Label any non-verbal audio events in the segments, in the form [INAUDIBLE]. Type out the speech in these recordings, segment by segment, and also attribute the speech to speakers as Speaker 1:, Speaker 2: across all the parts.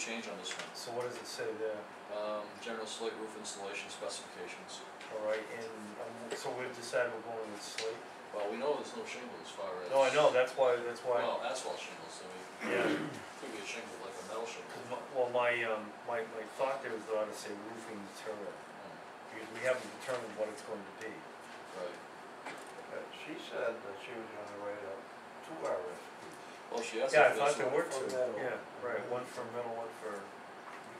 Speaker 1: change on this one.
Speaker 2: So what does it say there?
Speaker 1: Um, general slate roof installation specifications.
Speaker 2: Alright, and, um, so we've decided we're going with slate?
Speaker 1: Well, we know there's no shingle as far as.
Speaker 2: No, I know, that's why, that's why,
Speaker 1: Well, asphalt shingles, I mean,
Speaker 2: yeah,
Speaker 1: could be a shingle like a metal shingle.
Speaker 2: 'Cause my- well, my, um, my, my thought there was that I ought to say roofing material,
Speaker 1: Hmm,
Speaker 2: because we haven't determined what it's going to be.
Speaker 1: Right.
Speaker 3: Uh, She said that she was gonna write up two hours.
Speaker 1: Well, she asked if
Speaker 2: Yeah, I thought
Speaker 1: this
Speaker 2: there
Speaker 1: one,
Speaker 2: were
Speaker 3: for
Speaker 2: two,
Speaker 3: metal.
Speaker 2: yeah, right, one for metal, one for,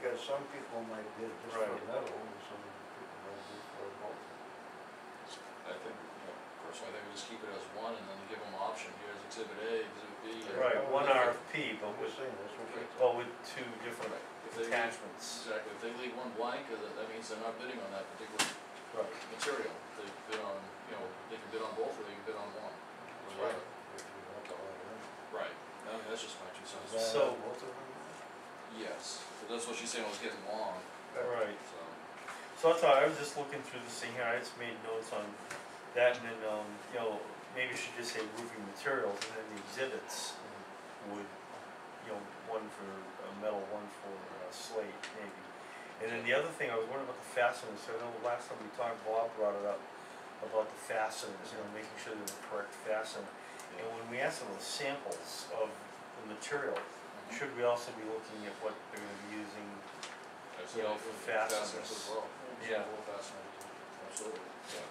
Speaker 3: Because some people might bid just for
Speaker 2: Right.
Speaker 3: metal, and some people might bid for both.
Speaker 1: I think, you know, of course, I think we just keep it as one and then give them option, here's exhibit A, exhibit B. and-
Speaker 2: right,
Speaker 3: Right.
Speaker 2: one RFP, but
Speaker 3: I'm
Speaker 2: with,
Speaker 3: just saying, that's what she
Speaker 2: but with two different
Speaker 1: Right. If they, leave-
Speaker 2: attachments.
Speaker 1: exactly, if they leave one blank, uh, that means they're not bidding on that particular
Speaker 2: Right.
Speaker 1: material. They bid on, you know, they can bid on both or they can bid on one.
Speaker 3: That's
Speaker 1: Right.
Speaker 3: right. If you want to let her in.
Speaker 1: Right, I mean, that's just my two cents.
Speaker 3: Is that
Speaker 2: So-
Speaker 3: both of them?
Speaker 1: Yes, but that's what she's saying, was getting long,
Speaker 2: Right,
Speaker 1: so,
Speaker 2: so I thought, I was just looking through this thing here, I just made notes on that, and then, um, you know, maybe we should just say roofing materials, and then the exhibits would, you know, one for uh, metal, one for uh, slate, maybe. And then the other thing, I was wondering about the fasteners, so I know last time we talked, Bob brought it up, about the fasteners, you know, making sure they're the correct fastener. And when we asked them the samples of the material,
Speaker 1: Mhm.
Speaker 2: should we also be looking at what they're gonna be using?
Speaker 1: I'd say
Speaker 2: you know,
Speaker 1: it
Speaker 2: for
Speaker 1: would be fasteners
Speaker 2: fasteners.
Speaker 1: as well.
Speaker 2: Yeah.
Speaker 1: Well, fasteners, absolutely, yeah,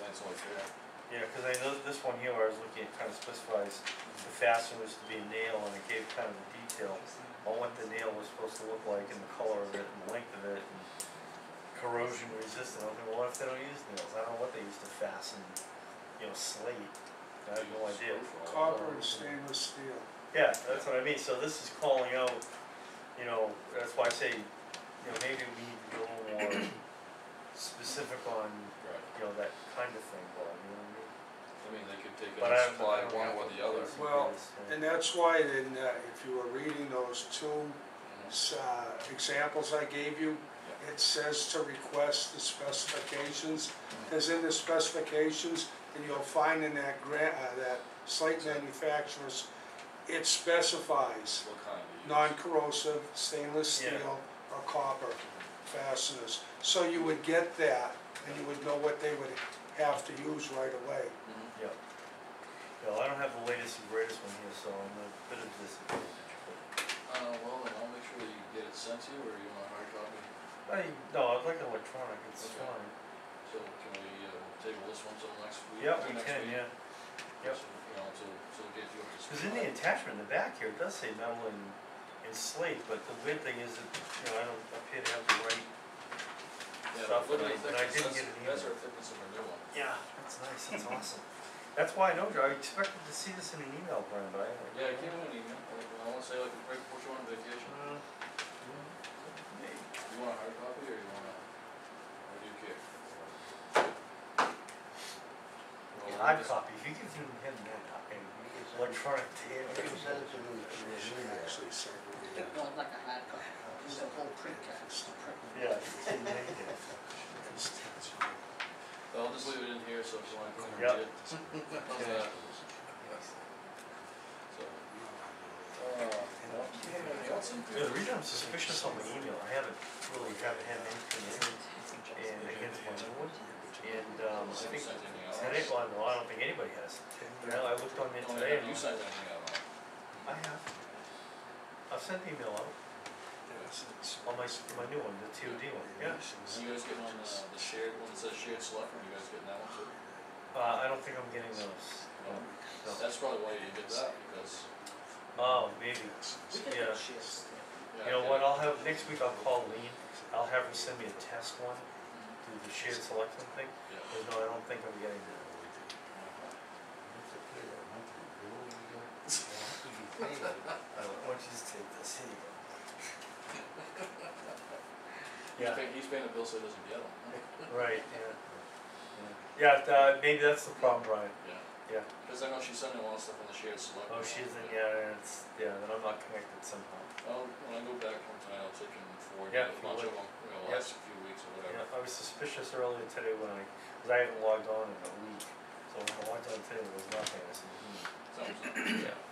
Speaker 1: that's only fair.
Speaker 2: Yeah, cause I know this one here, where I was looking at kind of specifies the fasteners to be a nail, and it gave kind of a detail on what the nail was supposed to look like, and the color of it, and the length of it, and corrosion resistant, I was like, well, what if they don't use nails, I don't know what they use to fasten, you know, slate, I have no
Speaker 1: Use
Speaker 2: idea.
Speaker 1: screw for all of
Speaker 4: Copper and
Speaker 1: those.
Speaker 4: stainless steel.
Speaker 2: Yeah, that's what I mean, so this is calling out, you know, that's why I say, you know, maybe we need to be a little more [COUGHS] specific on,
Speaker 1: Right,
Speaker 2: you know, that kind of thing, Bob, you know what I mean?
Speaker 1: I mean, they could take it
Speaker 2: But I
Speaker 1: and
Speaker 2: don't
Speaker 1: supply
Speaker 2: know
Speaker 1: one
Speaker 2: how
Speaker 1: or
Speaker 2: to
Speaker 1: the other.
Speaker 2: place it
Speaker 4: Well,
Speaker 2: is, yeah.
Speaker 4: And that's why in, uh, if you were reading those two,
Speaker 1: Mhm.
Speaker 4: uh, examples I gave you,
Speaker 1: Yeah.
Speaker 4: it says to request the specifications. Cause in the specifications, and you'll find in that grant, uh, that slate manufacturers, it specifies
Speaker 1: What kind do you use?
Speaker 4: non-corrosive stainless
Speaker 2: Yeah.
Speaker 4: steel or copper fasteners. So you would get that, and you would know what they would have to use right away.
Speaker 1: Mhm.
Speaker 2: Yeah. Yeah, well, I don't have the latest and greatest one here, so I'm a bit of disadvantage, but,
Speaker 1: Uh, well, then I'll make sure that you get it sent to you, or you want a hard copy?
Speaker 2: I, no, I'd like electronic, it's
Speaker 1: Okay.
Speaker 2: fine.
Speaker 1: So can we, uh, table this one till next week?
Speaker 2: Yeah,
Speaker 1: or
Speaker 2: we
Speaker 1: next
Speaker 2: can,
Speaker 1: week?
Speaker 2: yeah. Yep.
Speaker 1: So, You know, to, to get you up to speed.
Speaker 2: Cause in the attachment in the back here, it does say metal and, and slate, but the weird thing is that, you know, I don't appear to have the right.
Speaker 1: Yeah,
Speaker 2: stuff,
Speaker 1: look at
Speaker 2: and I-
Speaker 1: the
Speaker 2: and I
Speaker 1: thickness, that's-
Speaker 2: didn't get an
Speaker 1: That's
Speaker 2: email.
Speaker 1: our thickness of our new one.
Speaker 2: Yeah. That's nice,
Speaker 1: [LAUGHS]
Speaker 2: that's awesome. That's why I know, Joe, I expected to see this in an email, Brian, but I.
Speaker 1: Yeah, I gave him an email, I- I wanna say like, right before you went on vacation,
Speaker 2: Uh, maybe.
Speaker 1: you want a hard copy or you wanna, or do you care? Well,
Speaker 2: Yeah, Hard
Speaker 1: just-
Speaker 2: copy, if you give him him that copy,
Speaker 3: You can send-
Speaker 2: electronic to him.
Speaker 3: You can send it to me, to me,
Speaker 4: She
Speaker 3: yeah.
Speaker 4: actually said we
Speaker 5: No,
Speaker 4: did.
Speaker 5: like a hard copy, it's a whole print card, it's the print.
Speaker 2: Yeah. it's in there.
Speaker 1: Well, I'll just leave it in here, so if you wanna come and
Speaker 2: Yep.
Speaker 1: get it. How's
Speaker 2: Yeah.
Speaker 1: that? So, uh, you have anything else in
Speaker 2: Yeah, the reason I'm suspicious on my email, I haven't really haven't had anything in, and against my own, and, um, I
Speaker 1: Have you
Speaker 2: think,
Speaker 1: sent anything out?
Speaker 2: I didn't, well, no, I don't think anybody has. No, I looked on it
Speaker 1: Only
Speaker 2: today,
Speaker 1: have
Speaker 2: and
Speaker 1: Oh, you
Speaker 2: I
Speaker 1: sent anything out on it?
Speaker 2: have, I've sent the email out, on my, s- my new one, the TOD one, yeah.
Speaker 1: So You guys uh, getting on the, the shared one that says shared select, room, you guys getting that one too?
Speaker 2: Uh, I don't think I'm getting those,
Speaker 1: Oh.
Speaker 2: no, no,
Speaker 1: That's probably why you didn't get that, because,
Speaker 2: oh, maybe,
Speaker 5: We can
Speaker 2: Yeah.
Speaker 5: make shares.
Speaker 1: yeah.
Speaker 2: you know what, I'll have, next week I'll call Lean, I'll have her send me a test one, through the shared selection thing,
Speaker 1: Yeah.
Speaker 2: but no, I don't think I'm getting that. I don't, why don't you just take this, here you go.
Speaker 1: He's paying, he's paying the bill so he doesn't get them.
Speaker 2: Right, yeah. Yeah, Yeah, uh, maybe that's the problem, Brian.
Speaker 1: Yeah.
Speaker 2: Yeah.
Speaker 1: Cause I know she's sending a lot of stuff on the shared select.
Speaker 2: Oh,
Speaker 1: room.
Speaker 2: she's in, yeah, yeah, it's, yeah, then I'm not connected somehow.
Speaker 1: Well, when I go back one time, I'll take him forward, a
Speaker 2: Yeah, if you
Speaker 1: bunch
Speaker 2: would.
Speaker 1: of them, you know,
Speaker 2: Yeah.
Speaker 1: last few weeks or
Speaker 2: Yeah,
Speaker 1: whatever.
Speaker 2: I was suspicious earlier today when I, cause I haven't logged on in a week, so when I logged on today, there was nothing, I said, hmm.
Speaker 1: Sounds like-
Speaker 2: Yeah.